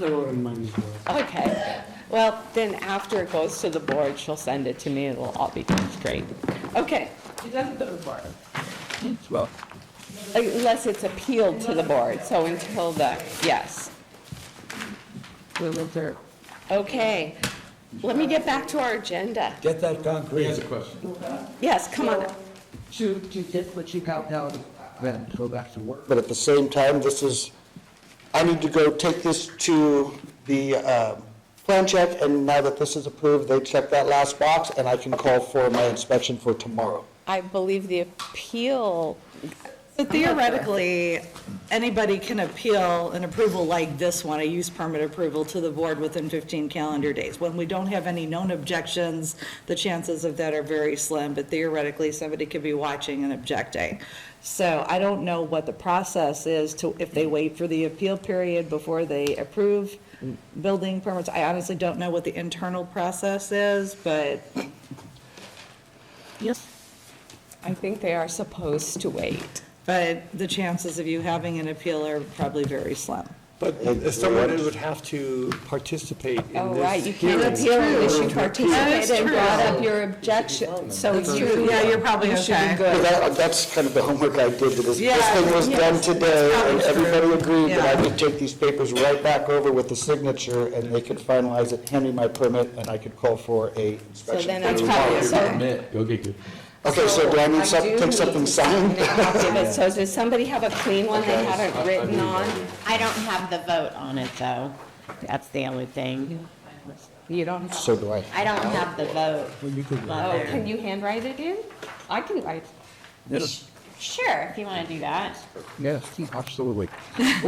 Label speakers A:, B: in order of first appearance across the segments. A: in mind as well.
B: Okay, well, then after it goes to the board, she'll send it to me, it'll all be straight. Okay,
C: It doesn't go to board.
D: Well,
B: unless it's appealed to the board, so until the, yes.
D: we'll look there.
B: Okay, let me get back to our agenda.
D: Get that concrete.
B: Yes, come on.
D: To, to get what you have now, then go back to work.
E: But at the same time, this is, I need to go take this to the um, plan check, and now that this is approved, they check that last box, and I can call for my inspection for tomorrow.
B: I believe the appeal,
F: So Theoretically, anybody can appeal an approval like this one, a use permit approval to the board within 15 calendar days. When we don't have any known objections, the chances of that are very slim, but theoretically, somebody could be watching and objecting. So I don't know what the process is to, if they wait for the appeal period before they approve building permits. I honestly don't know what the internal process is, but
B: I think they are supposed to wait.
F: But the chances of you having an appeal are probably very slim.
G: But someone would have to participate in this
B: Oh,
G: hearing.
B: right, you can't appeal unless you participated and brought up your objection, so you.
F: Yeah, you're probably okay.
E: But that- That's kind of the homework I did, that is, this
F: Yeah,
E: thing was
F: yes.
E: done today, and
F: That's probably
E: everybody agreed that I
F: Yeah.
E: could take these papers right back over with the signature, and they could finalize it, hand me my permit, and I could call for a
B: So
E: inspection.
B: then I probably, so
H: Go get your.
E: Okay, so do I need
B: do
E: something,
B: need
E: take something
B: to sign
E: signed?
B: a copy of it. So does somebody have a clean one they haven't written on?
C: I don't have the vote on it, though. That's the only thing.
B: You don't have.
E: So do I.
C: I don't have the vote. on
B: Oh,
C: there.
B: can you handwrite it in? I can write.
D: Yes,
C: Sure, if you want to do that.
D: yes, absolutely.
E: Oh,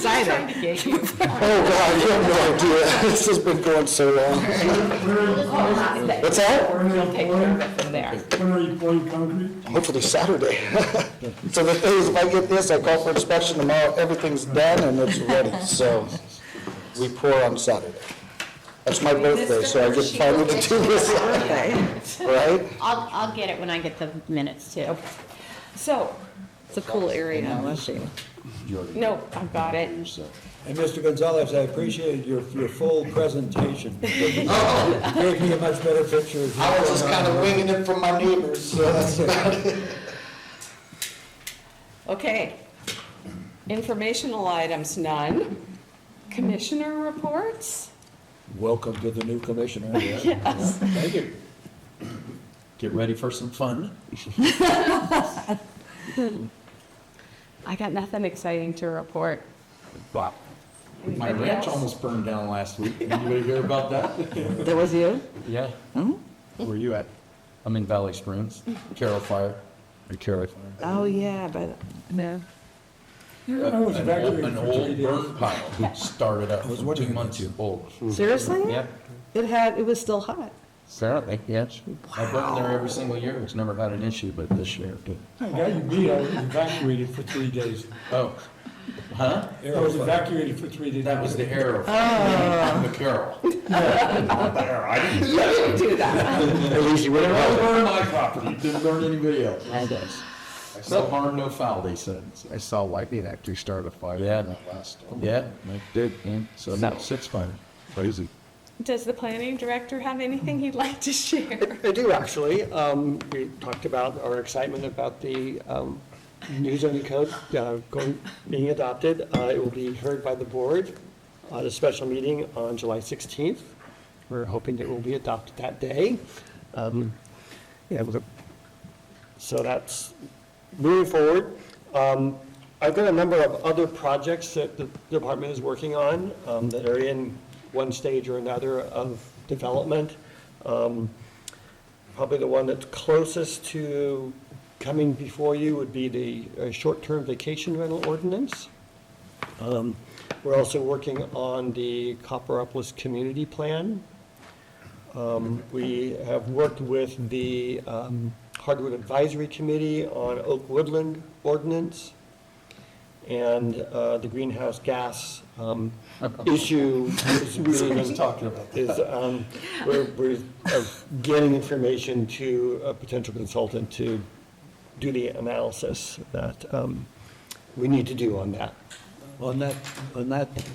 E: God, you have no idea. This has been going so long. What's that?
A: When
B: Take care of it from there.
A: when are you pouring concrete?
E: Hopefully Saturday. So the thing is, if I get this, I call for inspection tomorrow, everything's done and it's ready, so we pour on Saturday. That's my birthday, so I get finally to do this, right?
C: I'll, I'll get it when I get the minutes, too.
B: So,
F: It's a cool area, unless you.
B: no, I've got it.
I: And Mr. Gonzalez, I appreciated your, your full presentation. It Gave me a much better picture of
E: Oh. I
I: what's
E: was just
I: going
E: kind
I: on.
E: of winging it from my neighbors, so that's about it.
B: Okay. Informational items, none. Commissioner reports?
D: Welcome to the new commissioner.
H: Thank you. Get ready for some fun.
B: I got nothing exciting to report.
H: Wow. My
B: Anybody
H: ranch
B: else?
H: almost burned down last week. Anybody hear about that?
F: That was you?
H: Yeah.
D: Hmm? Where you at?
H: I'm in Valley Springs, Carroll Fire. Or Carroll Fire.
F: Oh, yeah, but, no.
A: I was
H: An
A: back
H: old-
A: there
H: an
A: for three
H: old
A: days.
H: burn pile started up from two months old.
F: Seriously?
H: Yep,
F: It had, it was still hot.
H: apparently, yes. I burn there every single year. It's never had an issue, but this year it did.
A: I got you beat, I was evacuated for three days.
H: Oh, huh?
A: I was evacuated for three days.
H: That was the arrow. Oh. The Carroll. Not the arrow. I didn't
E: At least you wouldn't
H: Don't
E: know.
H: burn my property, didn't burn anybody else. I saw harm, no foul, they said.
D: I saw lightning actually start a fire.
H: Yeah.
D: That last storm.
H: Yeah, I did, and so now six fire.
D: Crazy.
B: Does the planning director have anything he'd like to share?
G: I do, actually. Um, We talked about our excitement about the um, new zoning code uh, going, being adopted. Uh, It will be heard by the board at a special meeting on July 16th. We're hoping that it will be adopted that day. Um, Yeah, we'll- so that's moving forward. Um, I've got a number of other projects that the department is working on um, that are in one stage or another of development. Um, Probably the one that's closest to coming before you would be the uh, short-term vacation rental ordinance. Um, We're also working on the Copperopolis Community Plan. Um, We have worked with the um, Hardwood Advisory Committee on Oak Woodland Ordinance and uh, the greenhouse gas um, issue is really been talking about. Is, um, we're, we're uh, getting information to a potential consultant to do the analysis that um, we need to do on that.
I: On that, on that